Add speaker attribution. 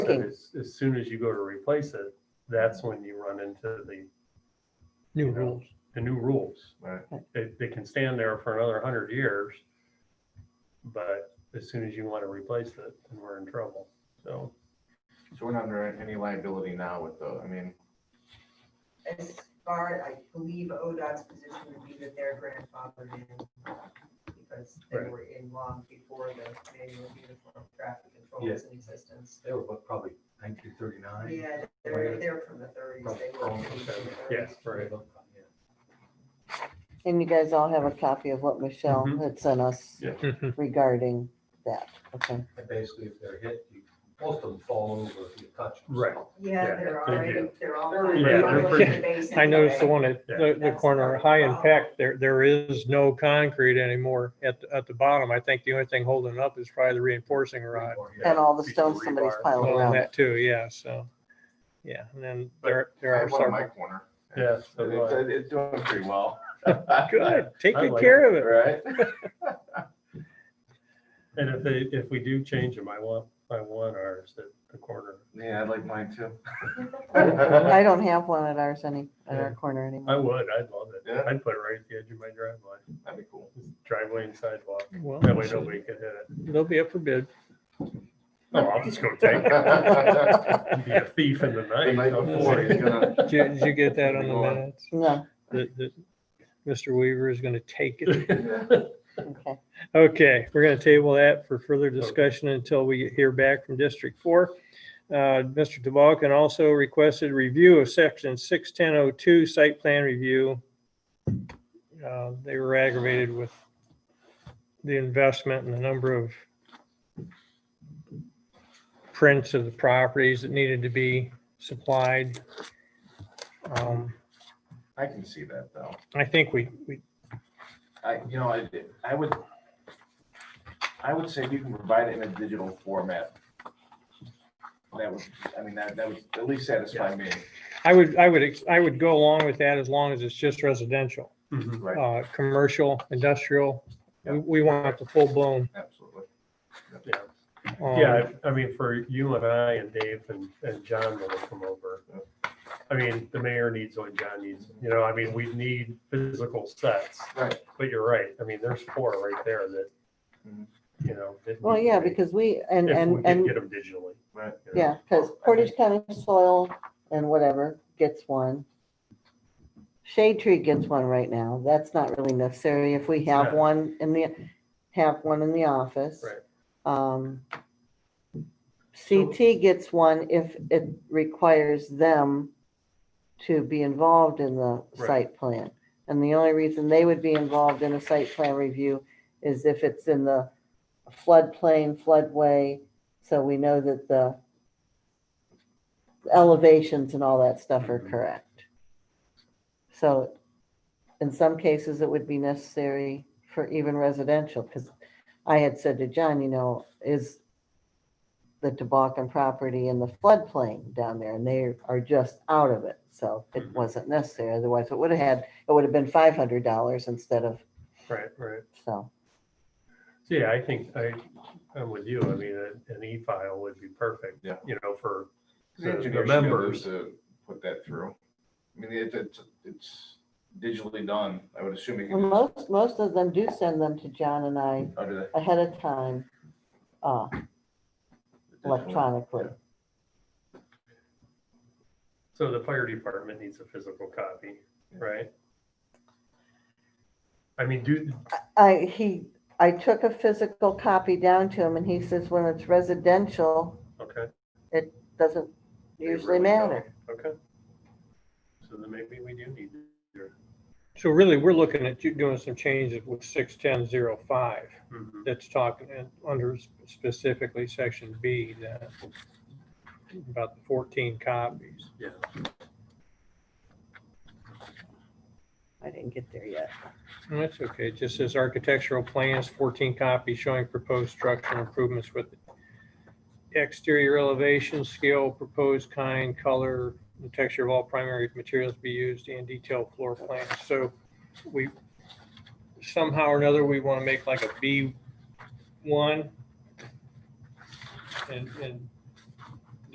Speaker 1: But
Speaker 2: thinking.
Speaker 1: As, as soon as you go to replace it, that's when you run into the,
Speaker 3: new
Speaker 1: you know,
Speaker 3: rules.
Speaker 1: the new rules.
Speaker 4: Right.
Speaker 1: They, they can stand there for another hundred years. But as soon as you want to replace it, then we're in trouble. So
Speaker 4: So we're not under any liability now with the, I mean,
Speaker 5: As far, I believe ODOT's position would be that they're grandfathered in because they
Speaker 1: Right.
Speaker 5: were in long before the manual uniform traffic control
Speaker 6: Yeah.
Speaker 5: was in existence.
Speaker 6: They were what, probably nineteen thirty-nine?
Speaker 5: Yeah, they're, they're from the thirties. They were.
Speaker 6: Oh,
Speaker 5: from the 30s.
Speaker 1: yes, right.
Speaker 2: And you guys all have a copy of what Michelle
Speaker 1: Mhm.
Speaker 2: had sent us
Speaker 1: Yeah.
Speaker 3: Mhm.
Speaker 2: regarding that. Okay,
Speaker 6: And basically, if they're hit, you- most of them fall over if you touch them.
Speaker 1: Right.
Speaker 5: Yeah,
Speaker 1: Yeah,
Speaker 5: they're
Speaker 1: they
Speaker 5: already,
Speaker 1: do.
Speaker 5: they're all.
Speaker 6: They're-
Speaker 1: Yeah,
Speaker 5: all
Speaker 1: they're
Speaker 5: in
Speaker 1: pretty-
Speaker 5: the basin
Speaker 3: I noticed the
Speaker 5: today.
Speaker 3: one at the, the
Speaker 5: That's
Speaker 3: corner,
Speaker 5: our
Speaker 3: of high
Speaker 5: problem.
Speaker 3: impact, there, there is no concrete anymore at, the- at the bottom. I think the only thing holding it up is probably the reinforcing rod.
Speaker 6: Or, yeah.
Speaker 2: and all the stones somebody's
Speaker 1: rebar.
Speaker 2: piling
Speaker 3: Well,
Speaker 2: around.
Speaker 3: That too, yeah, so, yeah, and then there, there
Speaker 4: I
Speaker 3: are
Speaker 4: have one in my
Speaker 3: several.
Speaker 4: corner.
Speaker 1: Yes. so
Speaker 4: And
Speaker 1: do
Speaker 4: It's,
Speaker 1: I.
Speaker 4: it's doing pretty well.
Speaker 3: Good, take
Speaker 1: I
Speaker 3: good
Speaker 1: like
Speaker 3: care of it.
Speaker 4: Right?
Speaker 1: And if they, if we do change them, I want, I want ours at the corner.
Speaker 4: Yeah, I'd like mine too.
Speaker 2: I don't have one at ours any, at our corner anymore.
Speaker 1: I would, I'd love it.
Speaker 4: Yeah.
Speaker 1: I'd put it right at the edge of my driveway,
Speaker 4: That'd be cool.
Speaker 1: driveway and sidewalk.
Speaker 3: Well,
Speaker 1: That way nobody could hit it.
Speaker 3: they'll be up for bid.
Speaker 1: Oh, I'll just go take
Speaker 4: The
Speaker 1: it. Be a thief in the night.
Speaker 4: night before, he's gonna,
Speaker 3: Did you, did you get that on the
Speaker 4: Go on.
Speaker 3: minutes?
Speaker 2: No,
Speaker 3: That, that Mr. Weaver is gonna take it?
Speaker 2: okay.
Speaker 3: Okay, we're gonna table that for further discussion until we hear back from District Four. Uh, Mr. DeBalkin also requested review of section six ten oh two site plan review. Uh, They were aggravated with the investment and the number of prints of the properties that needed to be supplied. Um,
Speaker 4: I can see that though.
Speaker 3: I think we, we
Speaker 4: I, you know, I, I would, I would say if you can provide it in a digital format. That would, I mean, that, that would at least satisfy me,
Speaker 3: I would, I would, ex- I would go along with that as long as it's just residential,
Speaker 1: Mhm.
Speaker 4: right?
Speaker 3: uh, commercial, industrial. We, we want the full blown.
Speaker 4: Absolutely.
Speaker 1: Yeah.
Speaker 3: um,
Speaker 1: Yeah, I I mean, for you and I and Dave and, and John when they come over. I mean, the mayor needs what John needs, you know, I mean, we need physical sets,
Speaker 4: Right.
Speaker 1: but you're right, I mean, there's four right there that,
Speaker 4: Mhm.
Speaker 1: you know. that
Speaker 2: Well,
Speaker 1: need to
Speaker 2: yeah,
Speaker 1: be-
Speaker 2: because we, and,
Speaker 1: If we
Speaker 2: and,
Speaker 1: could
Speaker 2: and,
Speaker 1: get them digitally.
Speaker 4: Right.
Speaker 1: you know.
Speaker 2: yeah, because Portage County Soil and whatever gets one. Shade Tree gets one right now. That's not really necessary if we have
Speaker 1: Yeah.
Speaker 2: one in the, have one in the office.
Speaker 1: Right.
Speaker 2: Um, CT gets one if it requires them to be involved in the
Speaker 1: Right.
Speaker 2: site plan. And the only reason they would be involved in a site plan review is if it's in the floodplain, floodway, so we know that the elevations and all that stuff are
Speaker 1: Mhm.
Speaker 2: correct. So in some cases, it would be necessary for even residential, because I had said to John, you know, is the Tobacan property in the floodplain down there, and they are just out of it. So it
Speaker 1: Mhm.
Speaker 2: wasn't necessary, otherwise it would have had, it would have been five hundred dollars instead of,
Speaker 1: Right, right.
Speaker 2: so.
Speaker 1: So, Yeah, I think I, I'm with you. I mean, a- an e-file would be perfect.
Speaker 4: Yeah.
Speaker 1: You know, for
Speaker 4: The
Speaker 1: the
Speaker 4: engineer
Speaker 1: the
Speaker 4: should be able
Speaker 1: members.
Speaker 4: to Put that through. I mean, it, it's, it's digitally done. I would assume you
Speaker 2: Well,
Speaker 4: can just,
Speaker 2: most, most of them do send them to John and I
Speaker 4: oh, do that.
Speaker 2: ahead of time, uh, electronically.
Speaker 1: So the fire department needs a physical copy, right? I mean, do,
Speaker 2: I, he, I took a physical copy down to him and he says when it's residential,
Speaker 1: okay.
Speaker 2: doesn't
Speaker 1: they
Speaker 2: usually
Speaker 1: really don't.
Speaker 2: matter.
Speaker 1: Okay. So then maybe we do need your.
Speaker 3: So really, we're looking at you doing some changes with six ten zero five.
Speaker 1: mhm.
Speaker 3: That's talking in- under specifically section B that about the fourteen copies.
Speaker 2: I didn't get there yet.
Speaker 3: And Oh, That's okay. It just says architectural plans, fourteen copies showing proposed structural improvements with exterior elevation, scale, proposed kind, color, and texture of all primary materials to be used and detailed floor plans. So we somehow or another, we want to make like a B one and, and